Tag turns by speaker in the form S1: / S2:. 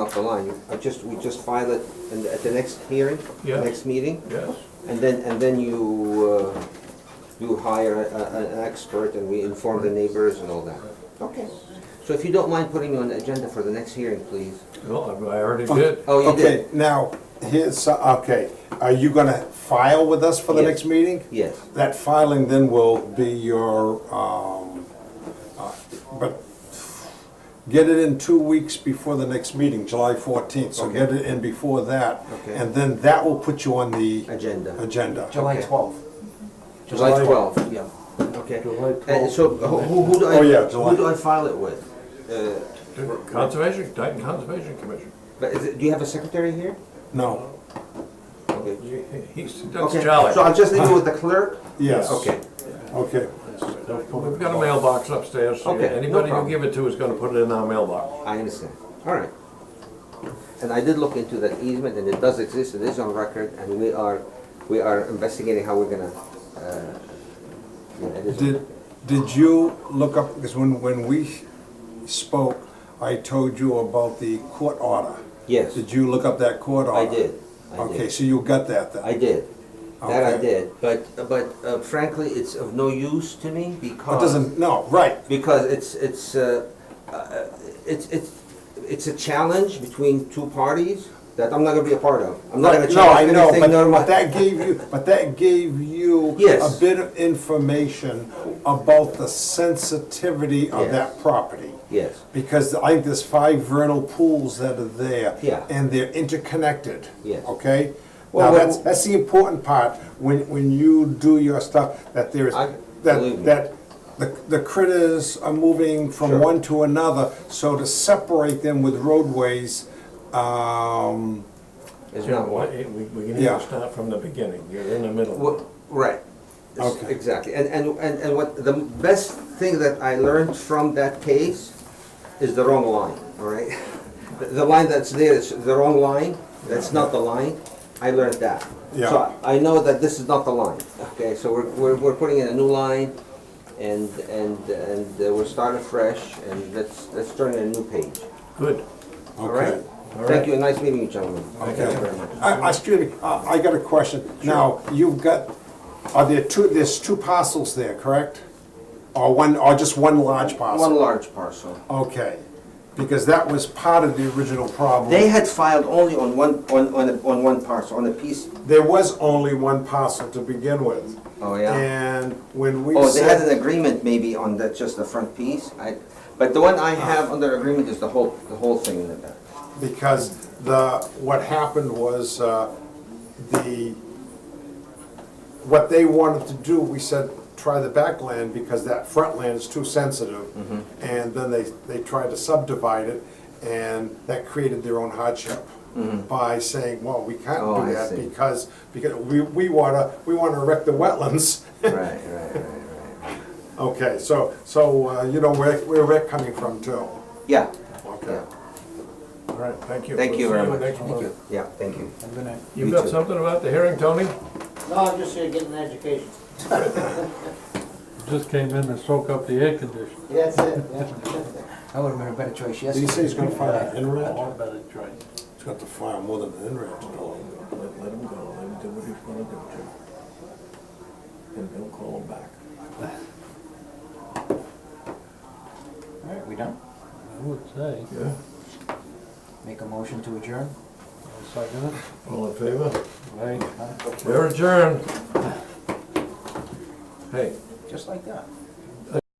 S1: off the line. I just, we just file it in the- at the next hearing,
S2: Yeah.
S1: the next meeting,
S2: Yes,
S1: and then, and then you, uh, you hire a- a- an expert and we inform the neighbors and all that. Okay. So if you don't mind putting me on the agenda for the next hearing, please.
S2: no, I already did.
S1: Oh, you
S3: Okay,
S1: did?
S3: now, here's, okay, are you gonna file with us for the
S1: Yes.
S3: next meeting?
S1: Yes.
S3: That filing then will be your, um, uh, but get it in two weeks before the next meeting, July fourteenth, so get it in before that.
S1: Okay.
S3: And then that will put you on the
S1: Agenda.
S3: agenda.
S4: July
S1: Okay.
S4: 12th.
S1: July
S4: July-
S1: 12th, yeah. Okay.
S4: July
S1: And
S4: 12th.
S1: Uh, so who, who who do I,
S3: Oh, yeah,
S1: who
S3: July.
S1: do I file it with? Uh,
S2: Conservation, Dayton Conservation Commission.
S1: But is it, do you have a secretary here?
S3: No,
S1: Okay.
S2: He's, that's
S1: Okay, So
S2: Charlie.
S1: I'll just leave it with the clerk?
S3: yes.
S1: Okay.
S3: Okay,
S2: We've got a mailbox upstairs.
S1: Okay, no
S2: Anybody you
S1: problem.
S2: give it to is gonna put it in our mailbox.
S1: I understand, all right. And I did look into that easement, and it does exist, it is on record, and we are, we are investigating how we're gonna, uh, yeah, it is.
S3: did, did you look up, because when, when we spoke, I told you about the court order.
S1: Yes,
S3: Did you look up that court
S1: I
S3: order?
S1: did, I
S3: Okay,
S1: did,
S3: so you got that then?
S1: I did, that I
S3: Okay.
S1: did, but, but uh, frankly, it's of no use to me because.
S3: It doesn't, no, right,
S1: because it's, it's, uh, uh, it's, it's, it's a challenge between two parties that I'm not gonna be a part of. I'm not gonna
S3: Right, No, I
S1: challenge
S3: know,
S1: anything,
S3: but,
S1: nor am I.
S3: but that gave you, but that gave you
S1: Yes.
S3: a bit of information about the sensitivity of
S1: Yes.
S3: that property.
S1: Yes,
S3: Because I think there's five vernal pools that are there.
S1: Yeah.
S3: And they're interconnected.
S1: Yes.
S3: Okay?
S1: Well,
S3: Now,
S1: well-
S3: that's, that's the important part, when, when you do your stuff, that there is,
S1: I- believe
S3: that,
S1: me.
S3: that the the critters are moving
S1: Sure.
S3: from one to another, so to separate them with roadways, um,
S1: it's
S2: You know,
S1: not one.
S2: we, we we need
S3: Yeah.
S2: to start from the beginning. You're in the middle.
S1: Well, Right. It's-
S3: Okay.
S1: Exactly, and, and, and and what, the best thing that I learned from that case is the wrong line, all right? The- The line that's there is the wrong line, that's not the line, I learned that.
S3: Yeah.
S1: So I know that this is not the line, okay, so we're, we're, we're putting in a new line, and, and, and uh, we're starting fresh, and let's, let's turn in a new page,
S2: Good.
S1: all right?
S3: Okay.
S2: All right.
S1: Thank you, and nice meeting you, gentlemen.
S2: Thank you
S3: Okay.
S2: very much.
S3: Uh, Excuse me, uh, I got a question. Now, you've got, are there two, there's two parcels there, correct? Or one, or just one large
S1: One
S3: parcel?
S1: large parcel.
S3: Okay, because that was part of the original problem.
S1: They had filed only on one, on, on, a- on one parcel, on a piece.
S3: There was only one parcel to begin with.
S1: Oh,
S3: And when we
S1: Oh, they had an
S3: said,
S1: agreement maybe on that, just the front piece, I, but the one I have under agreement is the whole, the whole thing in the back.
S3: because the, what happened was, uh, the, what they wanted to do, we said, try the back land because that front land is too sensitive.
S1: Mm-hmm.
S3: And then they, they tried to subdivide it and that created their own hardship by saying, well, we
S1: Mm-hmm. Oh, I
S3: can't do that
S1: see.
S3: because, because we, we wanna, we wanna wreck the wetlands.
S1: Right, right, right, right.
S3: Okay, so, so, uh, you know, where, where we're coming from too.
S1: Yeah,
S3: Okay.
S1: yeah,
S2: All right, thank you.
S1: thank
S2: We'll
S1: you
S2: see
S1: very much.
S2: next month.
S1: Yeah, thank you.
S2: You've
S1: You
S2: got
S1: too.
S2: something about the hearing, Tony?
S5: No, I'm just here getting an education.
S6: Just came in to soak up the air conditioning.
S5: That's it, yeah.
S4: That would have been a better choice
S3: Did he
S4: yesterday.
S3: say he's gonna file an INRAD?
S6: better choice.
S3: He's got to file more than an INRAD to
S2: Let, let him go, let him do what he's gonna do, Jim. And he'll call him back.
S4: All right, we done?
S6: I would say.
S2: Yeah,
S4: Make a motion to adjourn?
S6: I'll second it.
S2: all in favor?
S6: Right.
S2: We're adjourned. Hey,
S4: Just like that.